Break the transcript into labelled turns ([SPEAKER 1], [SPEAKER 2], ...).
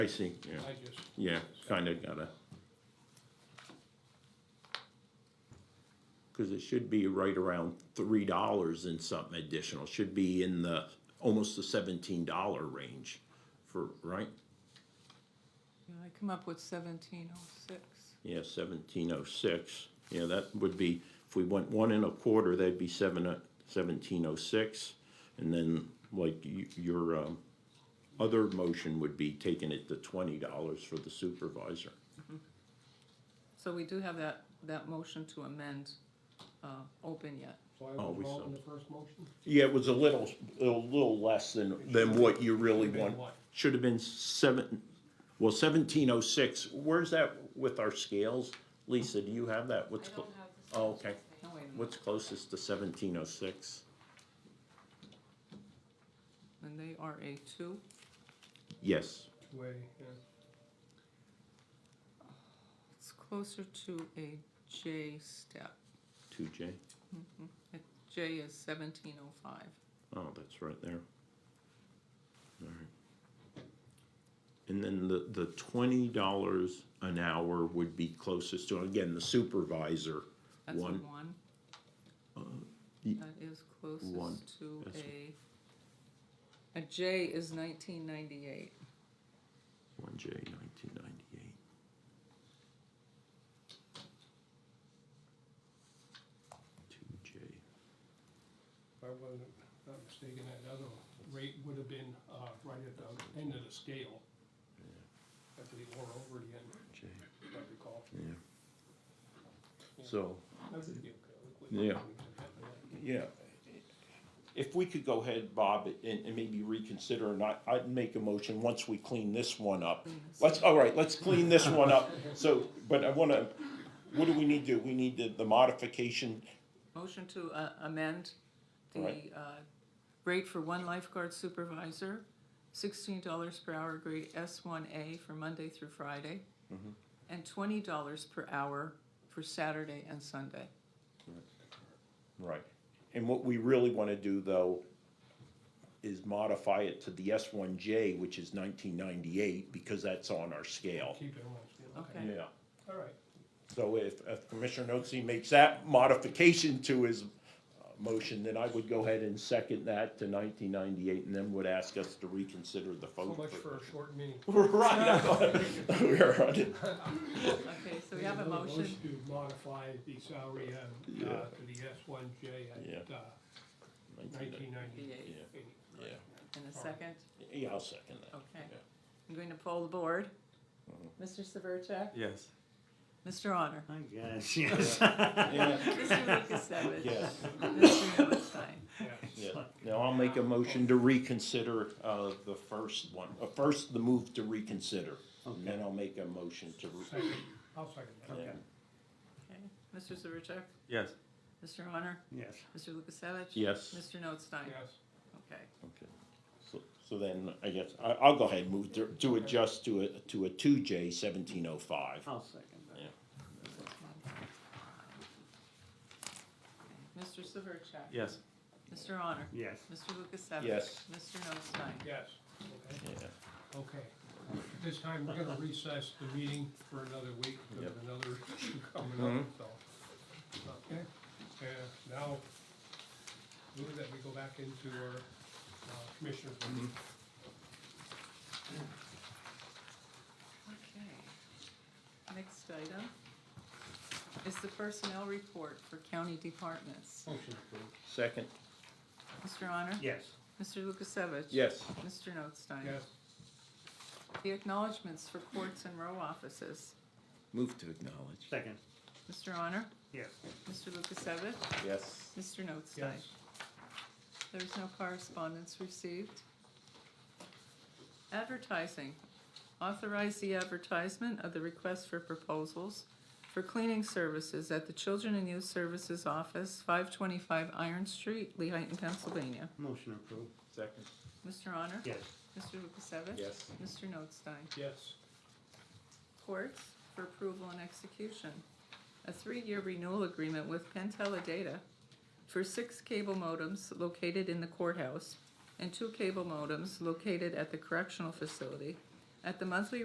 [SPEAKER 1] I see, yeah,
[SPEAKER 2] I just,
[SPEAKER 1] yeah, kinda gotta. Cause it should be right around three dollars and something additional, should be in the, almost the seventeen dollar range for, right?
[SPEAKER 3] Yeah, I come up with seventeen oh six.
[SPEAKER 1] Yeah, seventeen oh six, yeah, that would be, if we went one and a quarter, that'd be seven, seventeen oh six. And then, like, you, your, um, other motion would be taking it to twenty dollars for the supervisor.
[SPEAKER 3] So we do have that, that motion to amend, uh, open yet.
[SPEAKER 2] so I
[SPEAKER 1] Oh,
[SPEAKER 2] was
[SPEAKER 1] we
[SPEAKER 2] wrong in
[SPEAKER 1] saw.
[SPEAKER 2] the first motion?
[SPEAKER 1] Yeah, it was a little, a little less than, than what you really
[SPEAKER 2] Should've been
[SPEAKER 1] want.
[SPEAKER 2] what?
[SPEAKER 1] Should have been seven, well, seventeen oh six, where's that with our scales? Lisa, do you have that? What's, clo- oh, okay.
[SPEAKER 3] No, wait a minute.
[SPEAKER 1] What's closest to seventeen oh six?
[SPEAKER 3] And they are a two.
[SPEAKER 1] Yes,
[SPEAKER 2] Way, uh, yeah.
[SPEAKER 3] It's closer to a J step.
[SPEAKER 1] two J.
[SPEAKER 3] A J is seventeen oh five.
[SPEAKER 1] Oh, that's right there. Alright. And then the, the twenty dollars an hour would be closest to, again, the supervisor.
[SPEAKER 3] That's a
[SPEAKER 1] One.
[SPEAKER 3] one.
[SPEAKER 1] y-
[SPEAKER 3] That is
[SPEAKER 1] one.
[SPEAKER 3] closest to
[SPEAKER 1] That's-
[SPEAKER 3] a, a J is nineteen ninety-eight.
[SPEAKER 1] One J nineteen ninety-eight. Two J,
[SPEAKER 2] If I wasn't not mistaken, that other rate would have been, uh, right at the end of the scale. At the, or over the end,
[SPEAKER 1] J,
[SPEAKER 2] if I recall.
[SPEAKER 1] yeah. So,
[SPEAKER 2] That would be okay.
[SPEAKER 1] Yeah. yeah, if we could go ahead, Bob, and, and maybe reconsider, and I, I'd make a motion once we clean this one up. Let's, all right, let's clean this one up, so, but I wanna, what do we need to, do? we need the, the modification,
[SPEAKER 3] Motion to uh, amend the
[SPEAKER 1] Right.
[SPEAKER 3] uh, rate for one lifeguard supervisor, sixteen dollars per hour grade S one A for Monday through Friday,
[SPEAKER 1] Mm-hmm.
[SPEAKER 3] and twenty dollars per hour for Saturday and Sunday.
[SPEAKER 1] Right. And what we really wanna do though is modify it to the S one J, which is nineteen ninety-eight, because that's on our scale.
[SPEAKER 2] Keep it on that scale, okay.
[SPEAKER 3] Okay.
[SPEAKER 2] All right,
[SPEAKER 1] So if, if Commissioner Notsi makes that modification to his uh, motion, then I would go ahead and second that to nineteen ninety-eight and then would ask us to reconsider the
[SPEAKER 2] so
[SPEAKER 1] vote.
[SPEAKER 2] much for a short meeting.
[SPEAKER 1] Right. I thought- we were on it.
[SPEAKER 3] Okay, so we have a
[SPEAKER 2] Another
[SPEAKER 3] motion.
[SPEAKER 2] To modify the salary, uh, uh, to the S one J at,
[SPEAKER 1] Yeah.
[SPEAKER 2] uh, nineteen ninety-eight.
[SPEAKER 3] Eight
[SPEAKER 1] Yeah,
[SPEAKER 3] And a second,
[SPEAKER 1] yeah, I'll second that.
[SPEAKER 3] okay.
[SPEAKER 1] Yeah. Mm-hmm.
[SPEAKER 3] I'm going to poll the board. Mr. Severcek?
[SPEAKER 4] Yes.
[SPEAKER 3] Mr. Honor?
[SPEAKER 4] I guess, yes.
[SPEAKER 3] Mr. Lukasevich?
[SPEAKER 1] Yes.
[SPEAKER 3] Mr. Notstein?
[SPEAKER 1] Yeah, now I'll make a motion to reconsider, uh, the first one, uh, first the move to reconsider. And then I'll make a motion to, re-
[SPEAKER 2] Second, I'll second that.
[SPEAKER 1] yeah,
[SPEAKER 3] Okay, Mr. Severcek?
[SPEAKER 4] Yes.
[SPEAKER 3] Mr. Honor?
[SPEAKER 4] Yes.
[SPEAKER 3] Mr. Lukasevich?
[SPEAKER 1] yes.
[SPEAKER 3] Mr. Notstein?
[SPEAKER 2] Yes,
[SPEAKER 3] Okay.
[SPEAKER 1] Okay. So, so then, I guess, I, I'll go ahead and move to, to adjust to a, to a two J seventeen oh five.
[SPEAKER 4] I'll second that.
[SPEAKER 3] Mr. Severcek?
[SPEAKER 4] Yes.
[SPEAKER 3] Mr. Honor?
[SPEAKER 4] Yes.
[SPEAKER 3] Mr. Lukasevich?
[SPEAKER 1] Yes.
[SPEAKER 3] Mr. Notstein?
[SPEAKER 2] yes, okay.
[SPEAKER 1] Yeah,
[SPEAKER 2] Okay, this time we're gonna recess the meeting for another week, because
[SPEAKER 1] Yep.
[SPEAKER 2] another issue coming up, so. Okay, and now, move that we go back into our uh, commissioner's meeting.
[SPEAKER 3] Okay. Next item is the personnel report for county departments.
[SPEAKER 1] Oh.
[SPEAKER 2] Motion approved.
[SPEAKER 1] second,
[SPEAKER 3] Mr. Honor?
[SPEAKER 4] Yes.
[SPEAKER 3] Mr. Lukasevich?
[SPEAKER 1] yes,
[SPEAKER 3] Mr. Notstein?
[SPEAKER 2] Yes,
[SPEAKER 3] The acknowledgements for courts and row offices.
[SPEAKER 1] move to acknowledge,
[SPEAKER 4] Second.
[SPEAKER 3] Mr. Honor?
[SPEAKER 4] Yes.
[SPEAKER 3] Mr. Lukasevich?
[SPEAKER 1] yes.
[SPEAKER 3] Mr. Notstein?
[SPEAKER 2] yes,
[SPEAKER 3] There's no correspondence received. Advertising. Authorize the advertisement of the request for proposals for cleaning services at the Children and Youth Services Office, five twenty-five Iron Street, Lehighton, Pennsylvania.
[SPEAKER 4] Motion approved.
[SPEAKER 1] Second,
[SPEAKER 3] Mr. Honor?
[SPEAKER 4] Yes.
[SPEAKER 3] Mr. Lukasevich?
[SPEAKER 1] yes,
[SPEAKER 3] Mr. Notstein?
[SPEAKER 2] yes,
[SPEAKER 3] Courts for approval and execution. A three-year renewal agreement with Pentella Data for six cable modems located in the courthouse and two cable modems located at the correctional facility At the monthly